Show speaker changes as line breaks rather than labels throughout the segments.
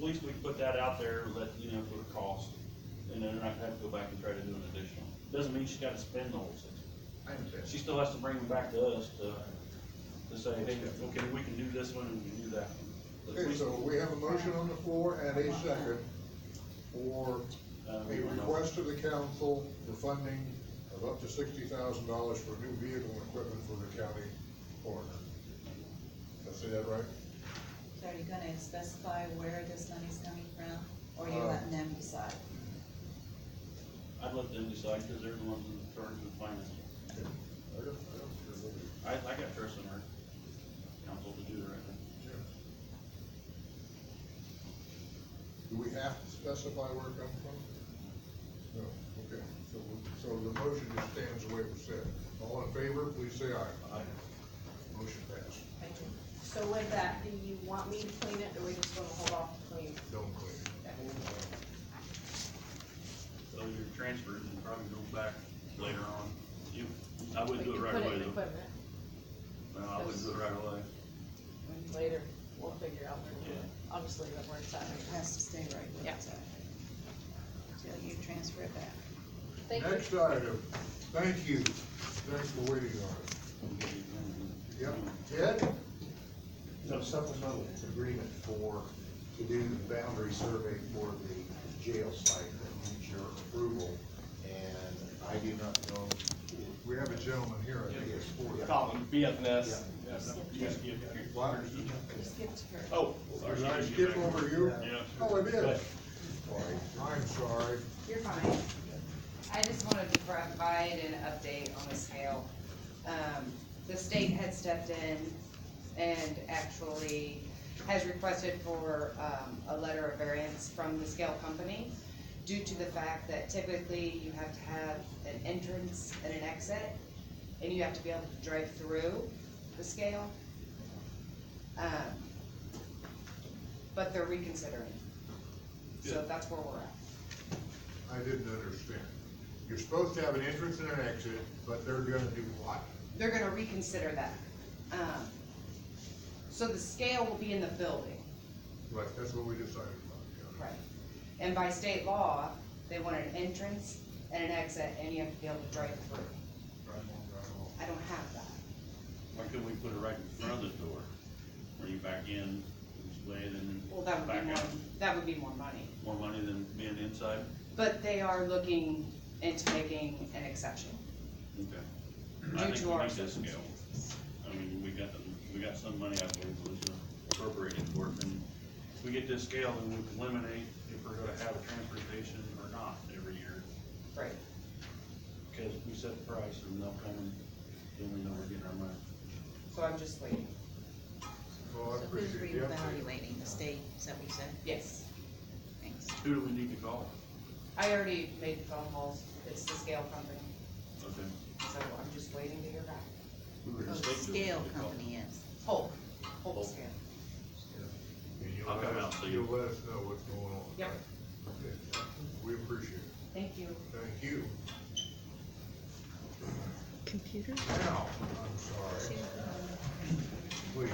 least we can put that out there, let, you know, for the cost, and then I have to go back and try to do an additional. Doesn't mean she's gotta spend the whole six.
I understand.
She still has to bring them back to us to, to say, hey, okay, we can do this one and we can do that one. But at
Okay,
least,
so we have a motion on the floor and a second for
uh,
a
we don't know.
request to the council for funding of up to sixty thousand dollars for new vehicle and equipment for the county coroner. Did I say that right?
So are you gonna specify where this money's coming from, or are you
Uh,
letting them decide?
I'd let them decide, cause they're the ones in charge of the finance.
I don't, I don't care what it
I, I got trust in our council to do the right thing.
is. Do we have to specify where it comes from? No, okay, so, we- so the motion just stands the way it was said. All in favor, please say aye.
Aye.
Motion passed.
So with that, do you want me to clean it, or we just wanna hold off to clean?
Don't clean it.
So your transfers will probably go back later on. You, I
We
wouldn't do
can
it right
put it
away
in
though.
equipment
No, I wouldn't do it right away.
Later, we'll figure out where to do it,
Yeah.
I'll just leave it where it's at
It
right
has to stay right where it's at. Till you transfer it back.
Thank you.
Next item, thank you, thanks for waiting on us. Yep, Ted?
No supplemental agreement for, to do the boundary survey for the jail site that needs your approval, and I do not know.
We have a gentleman here, I think it's for that.
Colin, BFNS.
Why?
Skip to her.
Oh, sorry.
Did I skip over you?
Yeah.
Oh, I did.
Right.
I'm sorry.
You're fine. I just wanted to provide an update on the scale. Um, the state had stepped in and actually has requested for, um, a letter of variance from the scale company due to the fact that typically you have to have an entrance and an exit, and you have to be able to drive through the scale. Um, but they're reconsidering. So
Good.
that's where we're at.
I didn't understand. You're supposed to have an entrance and an exit, but they're gonna do what?
they're gonna reconsider that. Um, So the scale will be in the building.
Right, that's what we decided about. yeah.
And by state law, they want an entrance and an exit, and you have to be able to drive through.
Right on, right on.
I don't have that.
Why couldn't we put it right in front of the door? Where you back in, just lay it in,
Well, that would
Back
be more,
out.
that would be more money.
more money than being inside?
But they are looking into making an exception.
Okay. I
Due
think
to
we
our
need to scale. I mean, we got, the we got some money, I believe, was appropriated for it, and if we get this scale, then we can eliminate if we're gonna have a transportation or not every year.
Right.
Cause we set the price and they'll come and then we know we're getting our money.
So I'm just waiting.
Well,
So
Oh, I
who's
appreciate the update.
reevaluating the state, is that what you said?
Yes.
Thanks.
Who do we need to call?
I already made the phone calls. It's the scale company,
Okay.
so I'm just waiting to hear back.
Who are the
Oh, the
state do we need
scale
to call?
company is.
Hulk, Hulk
Hulk.
scale.
And you'll
I'll
let
come
us-
out and see you.
You'll let us know what's going on.
Yep.
right? Okay. We appreciate it.
Thank you.
Thank you. Computer? Now, I'm sorry. Please.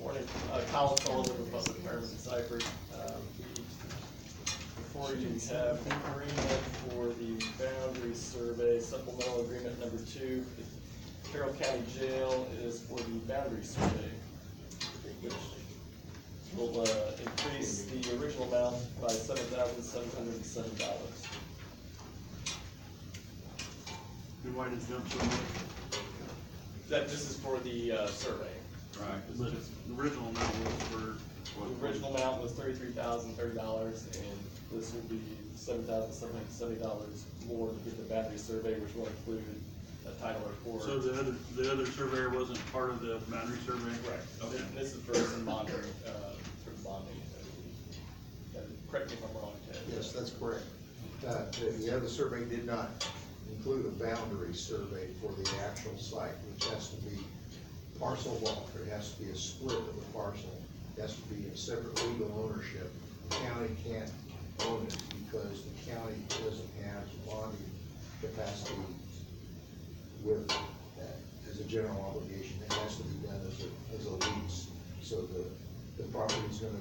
Morning, uh, Kyle Sullivan, Republic Fireman Cypress. Um, we- Before you have an agreement for the boundary survey, supplemental agreement number two, the Carroll County Jail is for the boundary survey, which will, uh, increase the original amount by seven thousand seven hundred and seven dollars.
Then why did it jump so much?
That, this is for the, uh, survey.
Right, but the original amount was for. what?
The original amount was thirty-three thousand thirty dollars, and this will be seven thousand seven hundred seventy dollars more to get the battery survey, which will include a title report.
So the other, the other surveyor wasn't part of the boundary survey?
Correct.
Okay.
This is for some bonding, uh, for bonding. uh, Correct me if I'm wrong, Ted.
Yes, that's correct. Uh, the- the other survey did not include a boundary survey for the actual site, which has to be parcel walk, it has to be a split of the parcel, it has to be a separate legal ownership. The county can't own it because the county doesn't have bonding capacity with that as a general obligation. It has to be done as a, as a lease, so the, the property's gonna